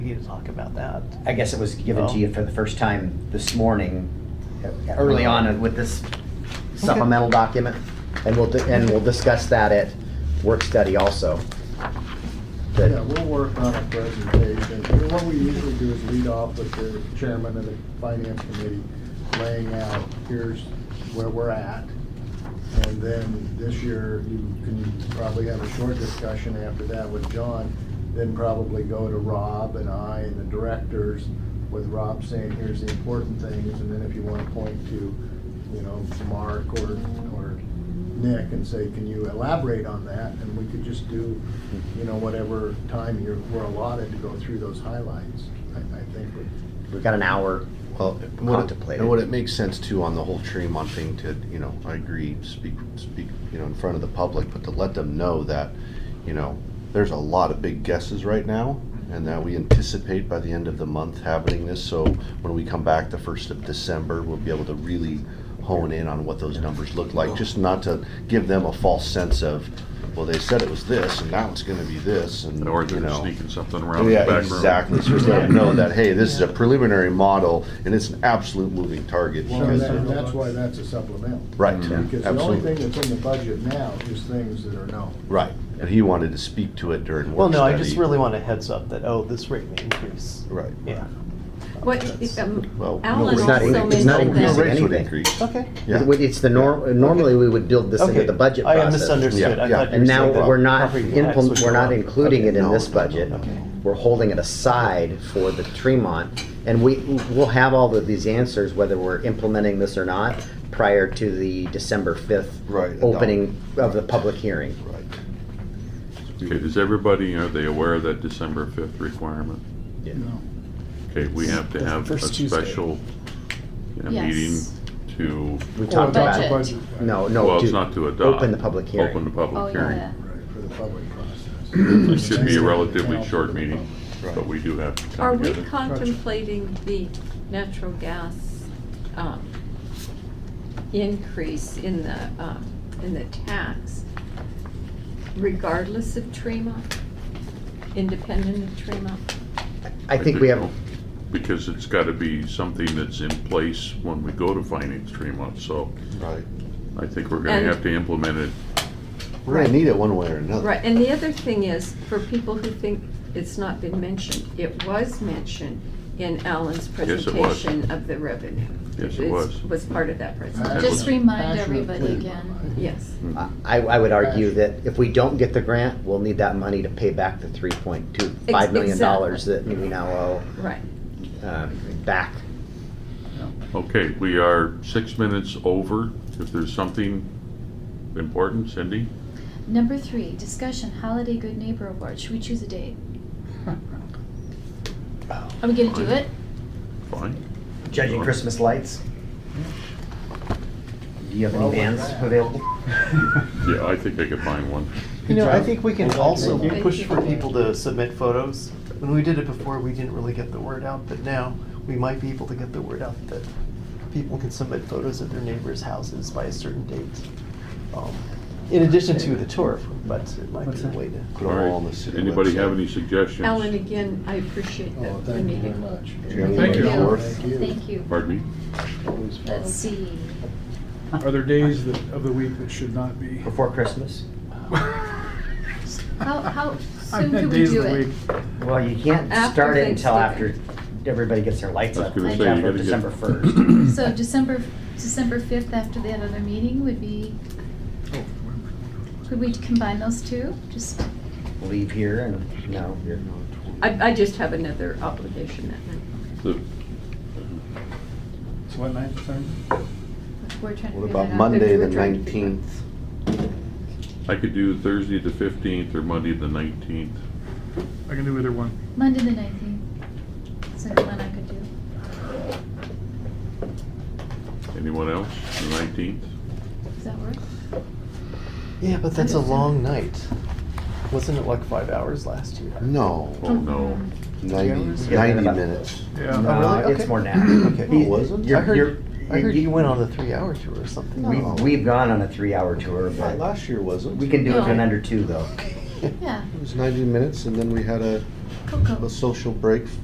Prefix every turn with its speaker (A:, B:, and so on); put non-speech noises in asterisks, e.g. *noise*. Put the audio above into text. A: you to talk about that.
B: I guess it was given
A: Oh.
B: to you for the first time this morning, uh, early on with this supplemental document. And we'll, di- and we'll discuss that at work study also. But-
C: Yeah, we'll work on a presentation. And What we usually do is lead off with the chairman of the finance committee laying out, here's where we're at. And then this year, you can probably have a short discussion after that with John, then probably go to Rob and I and the directors with Rob saying, here's the important things, and then if you want to point to, you know, Mark or, or Nick and say, can you elaborate on that? And we could just do, you know, whatever time you're, we're allotted to go through those highlights, I, I think. would-
B: We've got an hour
D: Well, it- would it,
B: contemplated.
D: and would it make sense too on the whole Tremont thing to, you know, I agree, speak, speak, you know, in front of the public, but to let them know that, you know, there's a lot of big guesses right now and that we anticipate by the end of the month having this, so when we come back the first of December, we'll be able to really hone in on what those numbers look like, just not to give them a false sense of, well, they said it was this and now it's gonna be this and,
E: Or
D: you
E: they're
D: know.
E: sneaking something around the
D: yeah,
E: back room.
D: exactly. So we let them know that hey, this is a preliminary model and it's an absolute moving target.
C: Well,
D: because-
C: that- that's why that's a supplemental.
D: right,
C: Because the only
D: absolutely,
C: thing that's in the budget now is things that are known.
D: right. And he wanted to speak to it during work
A: Well, no, I just
D: study.
A: really want a heads up that, oh, this rate may increase.
D: right.
A: Yeah.
F: What,
C: That's-
D: Well, no,
F: um, Alan
D: it's not-
F: also
B: it's not
F: mentioned
D: Rates
B: increasing
F: that,
D: would
B: anything.
D: increase.
A: Okay.
D: Yeah.
B: It- It's the norm, normally we would build this into
A: Okay.
B: the budget
A: I
B: process.
A: am misunderstood.
D: Yeah,
A: I
D: yeah.
A: thought you
B: And
A: were
B: now
A: saying that
B: we're not,
A: property tax would
B: implement-
A: go
B: we're not
A: up.
B: including it
A: Okay.
B: in
D: no,
B: this
D: no, no,
B: budget.
D: no.
B: We're holding it aside for the Tremont. And we, we'll have all of these answers, whether we're implementing this or not, prior to the December 5th
D: Right,
B: opening of the public hearing.
D: Right.
E: Okay, does everybody, are they aware of that December fifth requirement?
B: Yeah.
E: Okay, we have to have a
G: first Tuesday.
E: special, you know, meeting
F: yes.
E: to,
B: We talked about it.
F: Budget.
B: No, no.
E: well, it's
B: to
E: not to adopt.
B: Open the public
E: Open the
B: hearing.
F: oh,
E: public hearing.
F: yeah.
C: Right, for the public
G: *coughs*
C: process.
E: It should be a relatively short meeting, but we do have to
F: Are
E: come
F: we
E: together.
F: contemplating the natural gas um, increase in the, um, in the tax regardless of Tremont? Independent of Tremont?
B: I think we have,
E: Because it's gotta be something that's in place when we go to finance Tremont, so
D: Right.
E: I think we're gonna
F: And-
E: have to implement it.
D: We're gonna need it one way or another.
F: Right, and the other thing is, for people who think it's not been mentioned, it was mentioned in Alan's
E: Yes, it was.
F: presentation of the revenue.
E: Yes, it
F: It's-
E: was.
F: Was part of that presentation,
E: Just
H: remind
C: Actually,
H: everybody
C: please
H: again.
C: remind.
F: yes.
B: I, I would argue that if we don't get the grant, we'll need that money to pay back the 3.25 million dollars that we now owe
F: Right.
B: um, back.
E: Okay, we are six minutes over. If there's something important, Cindy?
H: Number three, discussion holiday good neighbor award. Should we choose a date? Are we gonna do it?
E: Fine.
B: Judging Christmas lights. Do you have any bands available?
E: Yeah, I think I could find one.
A: You know, I think we can also
F: Thank you.
A: push for people to submit photos. When we did it before, we didn't really get the word out, but now we might be able to get the word out that people can submit photos of their neighbors' houses by a certain date. Um, In addition to the tour, but it might be a way to.
D: Put them all on the city
E: Anybody have
D: website.
E: any suggestions?
F: Alan, again, I appreciate
C: Oh,
F: the- the
C: thank you very
F: meeting.
C: much.
F: Thank you.
C: Thank you.
H: Thank you.
E: Pardon me?
H: Let's see.
G: Are there days that, of the week that should not be?
B: Before Christmas?
G: *laughs*
C: *laughs*
H: How, how
G: I
H: soon
G: meant
H: can we
G: days
H: do
G: of the
H: it?
G: week.
B: Well, you can't
F: After
B: start it until after
F: Thanksgiving.
B: everybody gets their lights
E: I was
B: up,
E: gonna
B: like
E: say, you
B: after
E: gotta get-
B: December
E: *laughs*
B: 1st.
H: *clears throat* So December, December fifth after that other meeting would be,
C: Oh,
H: could we combine those two? Just,
B: Leave here and, no, you're,
F: I, I just have another obligation that night.
E: The-
G: So what night, Saturday?
H: we're trying to
D: What
H: figure that
D: about
H: out.
D: Monday, the
F: We're trying to figure it out.
D: nineteenth?
E: I could do Thursday the fifteenth or Monday the nineteenth.
G: I can do either one.
H: Monday the nineteenth. Is there one I could do?
E: Anyone else? The nineteenth?
H: Does that work?
D: *laughs*
A: Yeah, but that's a long night. Wasn't it like five hours last year?
D: No,
E: Oh, no.
H: Mm-hmm.
D: ninety,
B: Yeah,
D: ninety
B: about-
D: minutes.
G: Yeah.
A: Uh,
B: no,
A: really?
B: it's
A: Okay.
B: more now.
A: Okay.
D: *clears throat* No, it wasn't.
A: I
B: You're- you're-
A: heard, I heard
B: you-
A: you went on a three-hour tour or something.
B: We, we've gone on a three-hour tour,
D: Not
B: but
D: last year wasn't.
B: we can do it in
H: No.
B: under two, though.
H: Yeah,
D: It was ninety minutes and then we had a,
H: cool, cool.
D: a social break